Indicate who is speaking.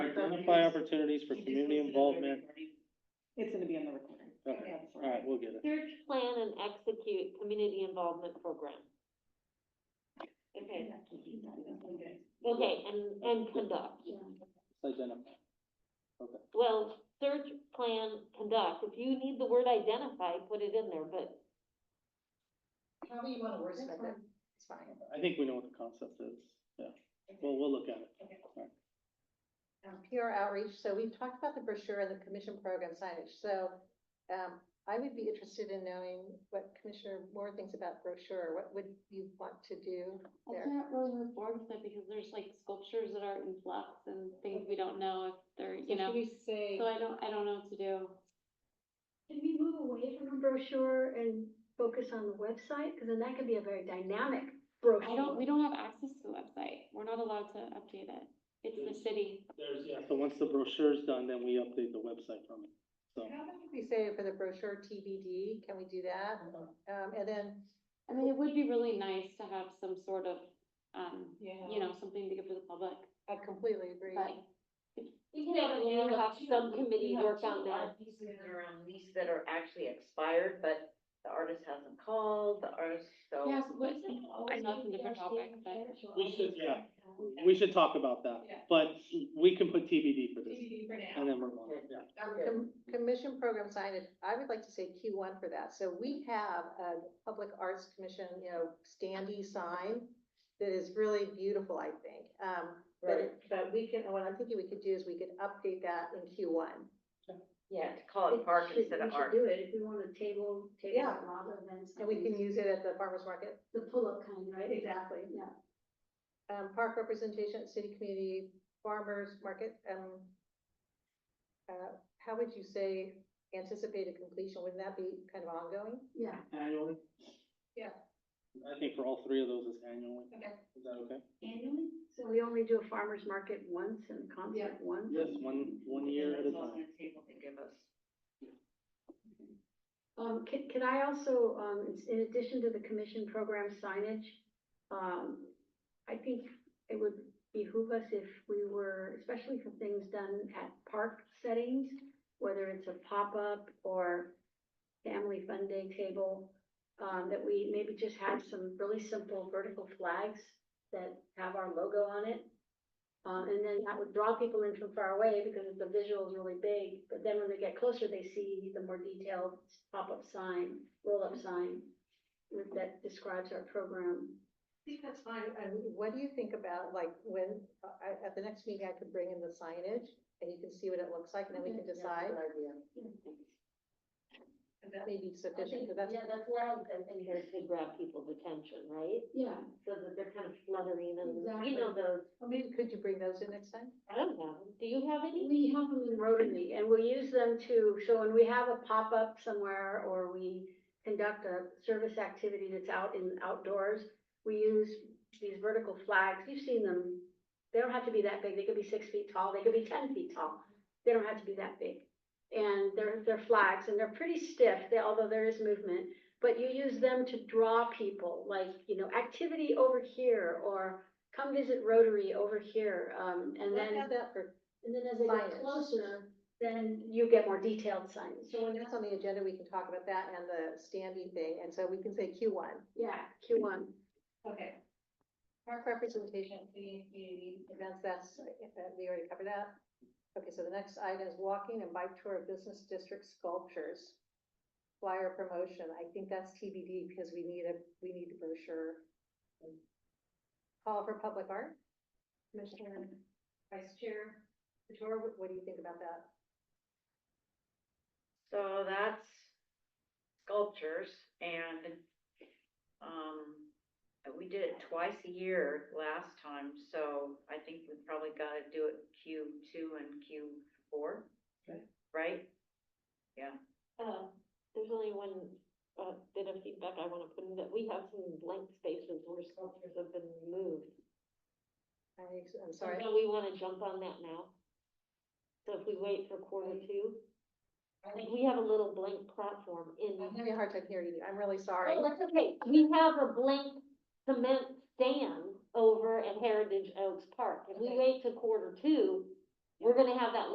Speaker 1: identify opportunities for community involvement.
Speaker 2: It's gonna be on the recording.
Speaker 1: Okay,
Speaker 2: Yeah,
Speaker 1: all
Speaker 2: sorry.
Speaker 1: right, we'll get it.
Speaker 3: Search, plan, and execute community involvement program. Okay, okay, and, and conduct.
Speaker 1: Let's Identify.
Speaker 3: Well, search, plan, conduct. If you need the word identify, put it in there, but
Speaker 4: However you wanna word
Speaker 2: That's
Speaker 4: spend it, it's fine.
Speaker 1: I think we know what the concept is. Yeah, well, we'll look at it.
Speaker 4: Um, PR outreach, so we've talked about the brochure and the commission program signage, so, um, I would be interested in knowing what Commissioner Moore thinks about brochure, what would you want to do
Speaker 5: I
Speaker 4: there?
Speaker 5: can't really move forward with it because there's like sculptures that are in flux and things we don't know if they're, you know,
Speaker 4: we say,
Speaker 5: so I don't, I don't know what to do.
Speaker 6: Can we move away from a brochure and focus on the website? Because then that could be a very dynamic brochure.
Speaker 5: I don't, we don't have access to the website. We're not allowed to update it. It's the city.
Speaker 1: There's, yeah. So once the brochure's done, then we update the website from it. So,
Speaker 4: how about if we say for the brochure TBD, can we do that? Um, and then,
Speaker 5: I mean, it would be really nice to have some sort of, um, you know, something to give to the public,
Speaker 4: I completely agree.
Speaker 5: but
Speaker 3: you can have, you have some committee work on that.
Speaker 7: These that are on these that are actually expired, but the artist hasn't called, the artist, so.
Speaker 5: Yes, what,
Speaker 6: Oh,
Speaker 5: I know it's a different topic, but
Speaker 1: we should, yeah, we should talk about that, but we can put TBD for this. And then we're on, yeah.
Speaker 4: Com- Commission program signage, I would like to say Q one for that. So we have a Public Arts Commission, you know, standee sign that is really beautiful, I think. Um, but, it- but we can, what I'm thinking we could do is we could update that in Q one.
Speaker 7: Yeah, to call it park instead of art.
Speaker 6: We should do it if we want to table, table
Speaker 4: Yeah.
Speaker 6: a lot of events.
Speaker 4: And we can use it at the farmer's market.
Speaker 6: The pull-up kind, right?
Speaker 4: Exactly.
Speaker 6: Yeah.
Speaker 4: Um, park representation, at city community, farmers market, um, uh, how would you say anticipated completion? Wouldn't that be kind of ongoing?
Speaker 6: Yeah.
Speaker 1: Annually?
Speaker 4: Yeah.
Speaker 1: I think for all three of those is annually.
Speaker 4: Okay.
Speaker 1: Is that okay?
Speaker 6: Annually? So we only do a farmer's market once and a concert once?
Speaker 1: Yes, one, one year at a
Speaker 7: That's all
Speaker 1: time.
Speaker 7: they're able to give us.
Speaker 6: Um, can, can I also, um, in- in addition to the commission program signage, um, I think it would behoove us if we were, especially for things done at park settings, whether it's a pop-up or family fun day table, um, that we maybe just have some really simple vertical flags that have our logo on it. Uh, and then that would draw people in from far away because the visual is really big, but then when they get closer, they see the more detailed pop-up sign, roll-up sign with- that describes our program.
Speaker 4: I think that's fine. And what do you think about, like, when, uh, I, at the next meeting, I could bring in the signage and you can see what it looks like and then we can decide. That may be sufficient, but that's,
Speaker 3: Yeah, that's what I was thinking, here to grab people's attention, right?
Speaker 6: Yeah,
Speaker 3: So that they're kind of fluttering and,
Speaker 6: Exactly.
Speaker 3: you know, those,
Speaker 4: well, maybe could you bring those in next time?
Speaker 3: I don't know, do you have any?
Speaker 6: we have them in Rotary and we use them to, so when we have a pop-up somewhere or we conduct a service activity that's out in outdoors, we use these vertical flags. You've seen them. They don't have to be that big. They could be six feet tall. They could be ten feet tall. They don't have to be that big. And they're, they're flags and they're pretty stiff, they- although there is movement. But you use them to draw people, like, you know, activity over here or come visit Rotary over here. Um, and
Speaker 4: Let's
Speaker 6: then.
Speaker 4: have that for,
Speaker 6: And then as they
Speaker 4: Signage.
Speaker 6: get closer, then you get more detailed signs.
Speaker 4: so when that's on the agenda, we can talk about that and the standing thing, and so we can say Q one.
Speaker 6: Yeah, Q one.
Speaker 4: Okay. Park representation, community, community events, that's, uh, we already covered that. Okay, so the next item is walking and bike tour of business district sculptures. Flyer promotion, I think that's TBD because we need a, we need a brochure. Call for public art, Commissioner, Vice Chair, Couture, what, what do you think about that?
Speaker 7: So that's sculptures and, um, we did it twice a year last time, so I think we probably gotta do it Q two and Q four.
Speaker 1: Okay.
Speaker 7: Right?
Speaker 3: Uh, there's only one, uh, bit of feedback I wanna put in, that we have some blank spaces where sculptures have been moved.
Speaker 4: I, I'm
Speaker 3: So
Speaker 4: sorry,
Speaker 3: Do we wanna jump on that now? So if we wait for quarter two? Like, we have a little blank platform in.
Speaker 4: I'm having a hard time hearing you, I'm really sorry.
Speaker 3: Oh, that's okay, we have a blank cement stand over at Heritage Oaks Park, if we
Speaker 4: Okay.
Speaker 3: wait to quarter two, We're gonna have that